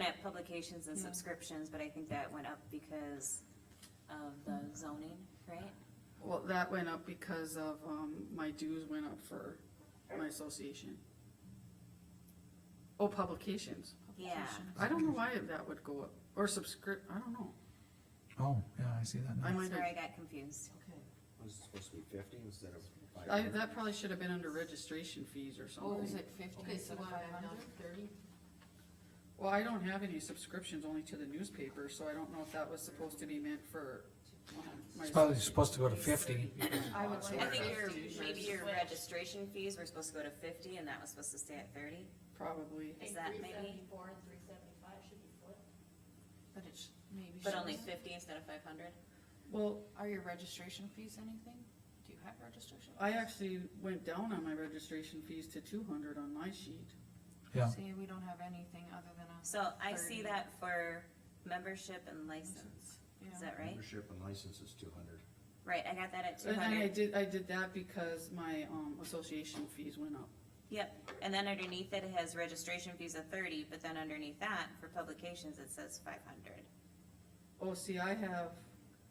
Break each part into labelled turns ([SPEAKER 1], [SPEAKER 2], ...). [SPEAKER 1] at publications and subscriptions, but I think that went up because of the zoning, right?
[SPEAKER 2] Well, that went up because of, um, my dues went up for my association. Oh, publications.
[SPEAKER 1] Yeah,
[SPEAKER 2] I don't know why that would go up, or subscrip, I don't know.
[SPEAKER 3] Oh, yeah, I see that
[SPEAKER 2] I
[SPEAKER 3] now.
[SPEAKER 1] that's
[SPEAKER 2] might
[SPEAKER 1] where
[SPEAKER 2] have,
[SPEAKER 1] I got confused.
[SPEAKER 4] Okay.
[SPEAKER 5] Was it supposed to be fifty instead of five
[SPEAKER 2] I,
[SPEAKER 5] hundred?
[SPEAKER 2] that probably should have been under registration fees or
[SPEAKER 4] Or Oh, is
[SPEAKER 2] something.
[SPEAKER 4] it fifty
[SPEAKER 6] Okay,
[SPEAKER 4] instead
[SPEAKER 6] so
[SPEAKER 4] of
[SPEAKER 6] what,
[SPEAKER 4] five
[SPEAKER 6] I'm down
[SPEAKER 4] hundred?
[SPEAKER 6] to thirty?
[SPEAKER 2] Well, I don't have any subscriptions, only to the newspaper, so I don't know if that was supposed to be meant for, um, my.
[SPEAKER 3] It's probably supposed to go to fifty.
[SPEAKER 4] I would
[SPEAKER 1] I
[SPEAKER 4] like
[SPEAKER 1] think your,
[SPEAKER 4] fifty.
[SPEAKER 1] maybe your registration fees were supposed to go to fifty and that was supposed to stay at thirty?
[SPEAKER 2] Probably.
[SPEAKER 1] Is that
[SPEAKER 6] Three
[SPEAKER 1] maybe,
[SPEAKER 6] seventy-four and three seventy-five should be flipped.
[SPEAKER 4] But it should, maybe.
[SPEAKER 1] but
[SPEAKER 4] should-
[SPEAKER 1] only fifty instead of five hundred?
[SPEAKER 2] Uh-huh. Well,
[SPEAKER 4] Are your registration fees anything? Do you have registration?
[SPEAKER 2] I
[SPEAKER 4] fees?
[SPEAKER 2] actually went down on my registration fees to two hundred on my sheet.
[SPEAKER 3] Yeah,
[SPEAKER 4] See, we don't have anything other than us.
[SPEAKER 1] So I see
[SPEAKER 4] 30.
[SPEAKER 1] that for membership and license,
[SPEAKER 4] Yeah.
[SPEAKER 1] is that right?
[SPEAKER 5] Membership and license is two hundred.
[SPEAKER 1] Right, I got that at two
[SPEAKER 2] And then I
[SPEAKER 1] hundred.
[SPEAKER 2] did, I did that because my, um, association fees went up.
[SPEAKER 1] Yep, and then underneath it, it has registration fees of thirty, but then underneath that, for publications, it says five hundred.
[SPEAKER 2] Oh, see, I have,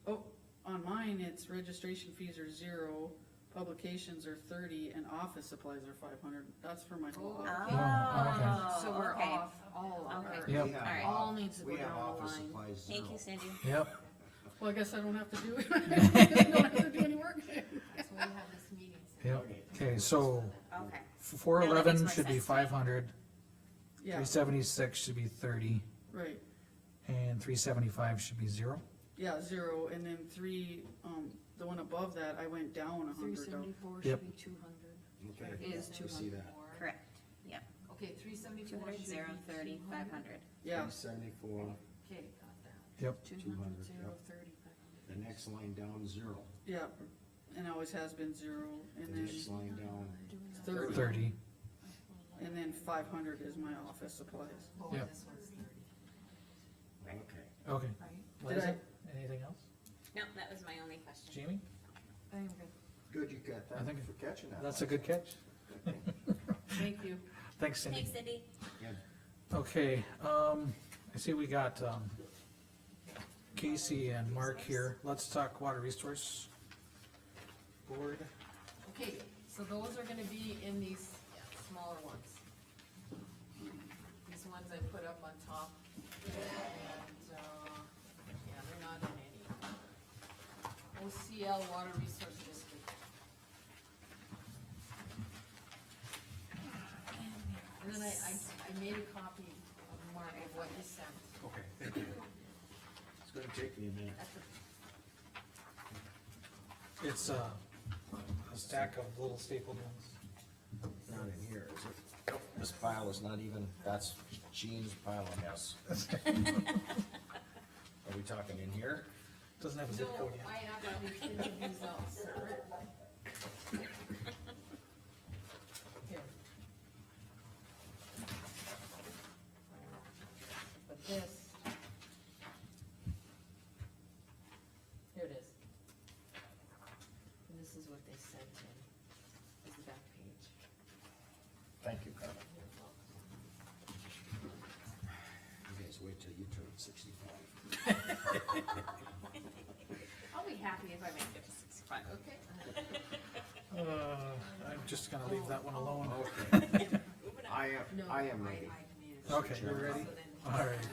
[SPEAKER 2] oh, on mine, it's registration fees are zero, publications are thirty, and office supplies are five hundred, that's for my whole
[SPEAKER 4] Oh.
[SPEAKER 2] office.
[SPEAKER 3] Oh,
[SPEAKER 4] So we're
[SPEAKER 1] okay.
[SPEAKER 4] off, all of
[SPEAKER 1] Okay.
[SPEAKER 4] our-
[SPEAKER 3] Yep.
[SPEAKER 5] We have
[SPEAKER 1] Alright.
[SPEAKER 5] off-
[SPEAKER 4] All needs to go
[SPEAKER 5] We have
[SPEAKER 4] down the
[SPEAKER 5] office
[SPEAKER 4] line.
[SPEAKER 5] supplies
[SPEAKER 1] Thank you,
[SPEAKER 5] zero.
[SPEAKER 1] Cindy.
[SPEAKER 3] yep,
[SPEAKER 2] Well, I guess I don't have to do, I don't have to do any work.
[SPEAKER 6] That's why we have this meeting. so-
[SPEAKER 3] yep. Okay, so
[SPEAKER 1] Okay,
[SPEAKER 3] four
[SPEAKER 1] No, that makes
[SPEAKER 3] eleven
[SPEAKER 1] more
[SPEAKER 3] should be
[SPEAKER 1] sense.
[SPEAKER 3] five hundred,
[SPEAKER 2] Yeah,
[SPEAKER 3] three seventy-six should be thirty,
[SPEAKER 2] right,
[SPEAKER 3] and three seventy-five should be zero.
[SPEAKER 2] yeah, zero, and then three, um, the one above that, I went down a hundred
[SPEAKER 4] Three
[SPEAKER 2] dollars.
[SPEAKER 4] seventy-four
[SPEAKER 3] Yep.
[SPEAKER 4] should be two hundred.
[SPEAKER 5] Okay,
[SPEAKER 4] Is
[SPEAKER 5] we see that.
[SPEAKER 1] correct. Yep,
[SPEAKER 6] Okay, three
[SPEAKER 1] two
[SPEAKER 6] seventy-four should
[SPEAKER 1] hundred,
[SPEAKER 6] be
[SPEAKER 1] zero, thirty,
[SPEAKER 6] two
[SPEAKER 1] five
[SPEAKER 6] hundred.
[SPEAKER 1] hundred.
[SPEAKER 2] Yeah,
[SPEAKER 5] Three seventy-four,
[SPEAKER 6] Okay, got that.
[SPEAKER 3] Yep,
[SPEAKER 4] Two
[SPEAKER 5] 200,
[SPEAKER 4] hundred, zero,
[SPEAKER 5] yep.
[SPEAKER 4] thirty, five hundred.
[SPEAKER 5] the next line down, zero,
[SPEAKER 2] yeah, and always has been zero,
[SPEAKER 5] the
[SPEAKER 2] and then
[SPEAKER 5] next line down,
[SPEAKER 2] thirty,
[SPEAKER 3] thirty.
[SPEAKER 2] and then five hundred is my office supplies.
[SPEAKER 6] Oh,
[SPEAKER 3] Yep.
[SPEAKER 6] this one's thirty.
[SPEAKER 5] okay.
[SPEAKER 3] Okay.
[SPEAKER 2] Did I-
[SPEAKER 3] Anything else?
[SPEAKER 1] No, that was my only question.
[SPEAKER 3] Jamie?
[SPEAKER 4] I am good.
[SPEAKER 5] Good, you got
[SPEAKER 3] I
[SPEAKER 5] that,
[SPEAKER 3] think-
[SPEAKER 5] for catching that.
[SPEAKER 3] That's a good catch.
[SPEAKER 2] Thank you.
[SPEAKER 3] Thanks, Cindy.
[SPEAKER 1] Thanks, Cindy.
[SPEAKER 5] Yeah.
[SPEAKER 3] Okay, um, I see we got, um, Casey and Mark here. Let's talk water resource board.
[SPEAKER 6] Okay, so those are gonna be in these smaller ones. These ones I put up on top, and, uh, yeah, they're not in any. OCL Water Resource District. And then I, I, I made a copy of Mark of what he sent.
[SPEAKER 3] Okay.
[SPEAKER 5] It's gonna take me a minute.
[SPEAKER 6] That's
[SPEAKER 3] It's,
[SPEAKER 6] a
[SPEAKER 3] uh, a stack of little staple guns.
[SPEAKER 5] Not in here, is it? Nope, This pile is not even, that's Jean's pile of mess. Are we talking in here?
[SPEAKER 3] Doesn't have a
[SPEAKER 6] No,
[SPEAKER 3] zip code yet.
[SPEAKER 6] I actually printed these out separate. Here. But this. Here it is. And this is what they sent in, is the back page.
[SPEAKER 5] Thank you, Carmen. You guys wait till you turn sixty-five.
[SPEAKER 1] I'll be happy if I make it to sixty-five.
[SPEAKER 6] Okay.
[SPEAKER 3] Uh, I'm just gonna leave that one alone.
[SPEAKER 5] Okay. I am,
[SPEAKER 6] No,
[SPEAKER 5] I am ready.
[SPEAKER 6] I made it.
[SPEAKER 3] Okay, you're ready? Alright,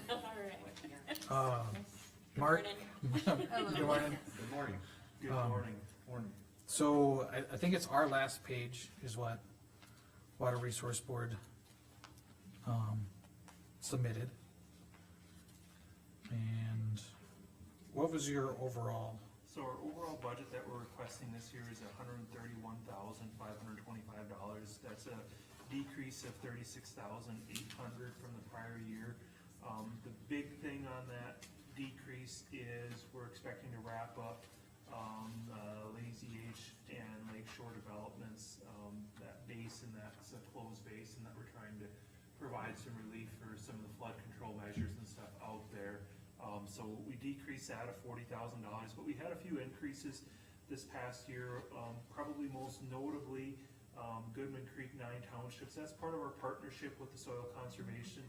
[SPEAKER 3] uh, Mark? Good morning.
[SPEAKER 5] Good morning.
[SPEAKER 3] Good morning. So, I, I think it's our last page is what Water Resource Board, um, submitted. And what was your overall,
[SPEAKER 7] So our overall budget that we're requesting this year is hundred and thirty-one thousand, five hundred and twenty-five dollars. That's a decrease of thirty-six thousand, eight hundred from the prior year. Um, the big thing on that decrease is we're expecting to wrap up, um, uh, Lazy H and Lake Shore Developments, um, that basin, that's a closed basin that we're trying to provide some relief for some of the flood control measures and stuff out there. Um, so we decreased that to forty thousand dollars, but we had a few increases this past year, um, probably most notably, um, Goodman Creek Nine Townships. That's part of our partnership with the Soil Conservation